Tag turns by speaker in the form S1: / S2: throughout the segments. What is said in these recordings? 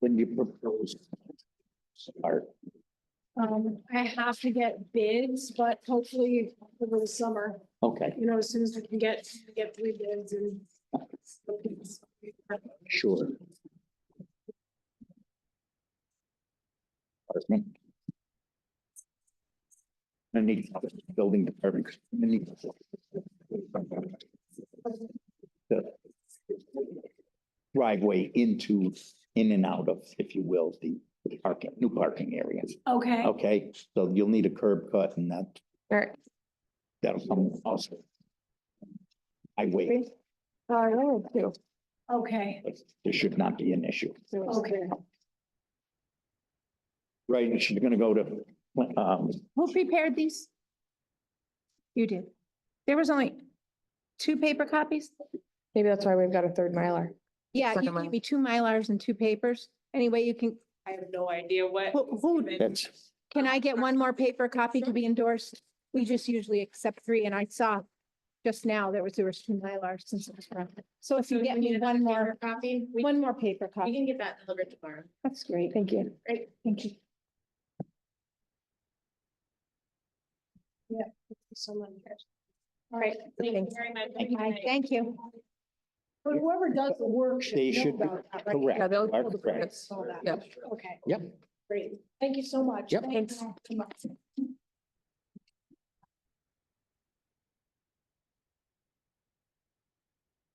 S1: when you propose? Start,
S2: Um, I have to get bids, but hopefully over the summer,
S1: okay,
S2: you know, as soon as we can get, get three bids and.
S1: sure. Department. I need building department. I need- The Driveway into, in and out of, if you will, the parking, new parking area.
S2: Okay,
S3: Oh.
S1: Okay, so you'll need a curb cut and that,
S3: Sure.
S1: that'll come also. I wait,
S2: okay,
S1: but there should not be an issue.
S2: okay.
S1: Right, she's gonna go to, um,
S3: Who prepared these? You did. There was only two paper copies?
S4: Maybe that's why we've got a third Mylar.
S3: Yeah, you
S4: Second
S3: gave
S4: one.
S3: me two Mylars and two papers. Anyway, you can,
S2: I have no idea what.
S3: who, who,
S1: that's,
S3: can I get one more paper copy to be endorsed? We just usually accept three and I saw just now there was, there was two Mylars since. it was from- So if you get me one more,
S2: copy,
S3: one more paper copy,
S2: can get that delivered tomorrow.
S3: that's great. Thank you.
S2: Great.
S3: Thank you.
S2: So much. All right, thank you very much. Have a good
S3: Bye.
S2: night.
S3: Thank you.
S2: But whoever does the work should.
S1: They
S2: know
S1: should be-
S2: about that, right?
S1: correct.
S4: Yeah, they'll
S1: Are
S4: pull the
S1: correct.
S4: permits.
S2: Saw that.
S4: Yeah.
S2: Okay.
S1: Yep.
S2: Great, thank you so much.
S1: Yep.
S2: Thank you so much.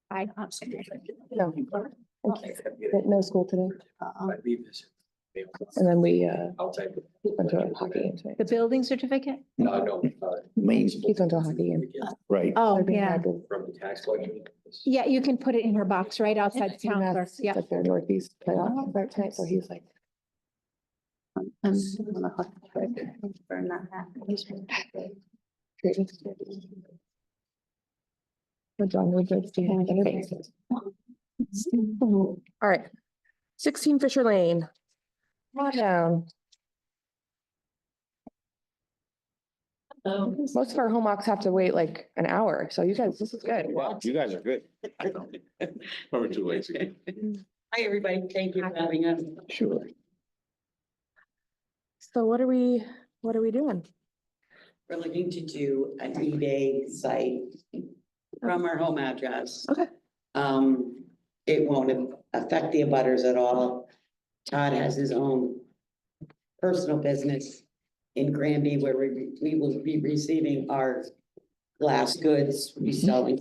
S3: Bye.
S4: No. But No school today.
S5: I leave this.
S4: Uh-uh. And then we uh
S5: I'll take it.
S4: went to a hockey game tonight.
S3: The building certificate?
S5: No, no, uh,
S1: Lane's,
S4: Keith went to a hockey game.
S1: right,
S3: Oh,
S4: They're being held
S5: from the tax collection.
S3: Yeah, you can put it in her box right outside the
S4: in
S3: town
S4: Mass-
S3: clerk. Yeah.
S4: Like their northeast playoff start tonight, so he's like. Um,
S6: I'm on the hook for for not having.
S4: creating security. But John would like to have interviews. All right. Sixteen Fisher Lane. Come down. Most of our home walks have to wait like an hour, so you guys, this is good.
S5: Wow, you guys are good. Over two weeks ago.
S6: Hi, everybody. Thank you for having us.
S1: sure.
S4: So what are we, what are we doing?
S6: We're looking to do an eBay site from our home address.
S4: Okay.
S6: Um, it won't affect the abutters at all. Todd has his own personal business in Granby where we, we will be receiving our glass goods, reselling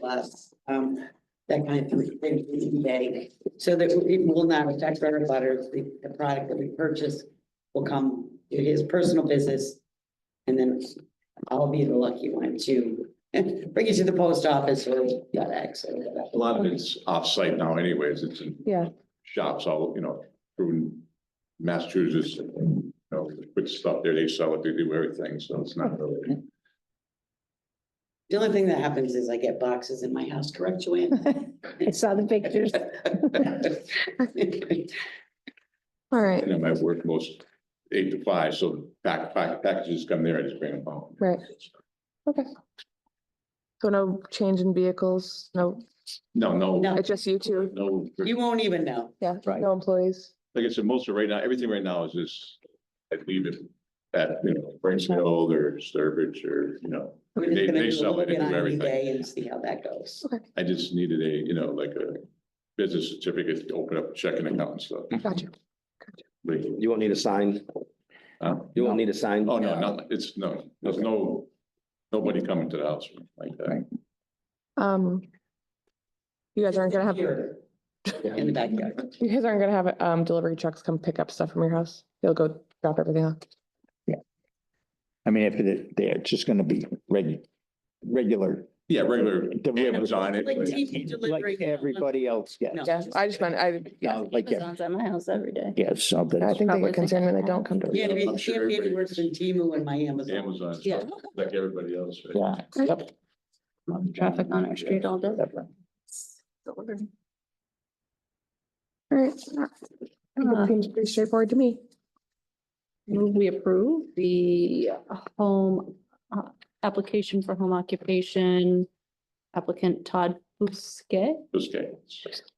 S6: glass, um, that kind of thing, through eBay. So that it will not affect our abutters, the, the product that we purchase will come to his personal business. And then I'll be the lucky one to bring it to the post office or FedEx or whatever.
S7: A lot of it's off-site now anyways, it's in
S4: Yeah,
S7: shops all, you know, through Massachusetts. You know, put stuff there, they sell it, they do everything, so it's not really.
S6: The only thing that happens is I get boxes in my house, correct, Joanne?
S3: I saw the pictures.
S4: all right,
S7: And I might work most eight to five, so pack, pack, packages come there, I just bring them home.
S4: Right. okay. So no change in vehicles, no,
S7: No, no,
S6: No.
S4: it's just you two,
S7: no,
S6: You won't even know.
S4: yeah,
S1: Right.
S4: no employees.
S7: like I said, most of right now, everything right now is just, I leave it at, you know, Brinsfield or Sturbridge or, you know.
S6: We're just
S7: They-
S6: gonna do
S7: they
S6: a
S7: sell
S6: little
S7: it, they
S6: bit
S7: do
S6: on
S7: everything.
S6: eBay and see how that goes.
S7: I just needed a, you know, like a business certificate to open up a checking account and stuff.
S4: Gotcha.
S7: But,
S8: You won't need a sign.
S7: uh,
S8: You won't need a sign.
S7: Oh, no, not, it's, no, there's no, nobody coming to the house like that.
S4: Um. You guys aren't gonna have, you
S6: Here, In the backyard.
S4: guys aren't gonna have, um, delivery trucks come pick up stuff from your house? They'll go drop everything off.
S1: I mean, if they're, they're just gonna be reg, regular.
S7: Yeah, regular
S1: Delivery.
S7: Amazon.
S6: Like
S7: anyway.
S6: TV delivery.
S1: Like everybody else gets.
S6: No.
S4: Yeah, I just meant, I, yeah,
S1: No, Like, ev-
S9: Amazon's at my house every day.
S1: yeah, so
S4: I
S1: that's,
S4: think they get concerned when they don't come
S6: Yeah,
S4: to.
S6: it
S7: I'm
S6: can't
S7: sure
S6: be any
S7: everybody-
S6: worse than Temu and my Amazon.
S7: Amazon,
S6: Yeah.
S7: like everybody else. right?
S1: yeah. yep,
S9: Traffic on our street all day.
S1: whatever.
S4: All right. It Seems pretty straightforward to me.
S9: Move We approve the home, uh, application for home occupation applicant Todd Bousquet
S7: Those guys.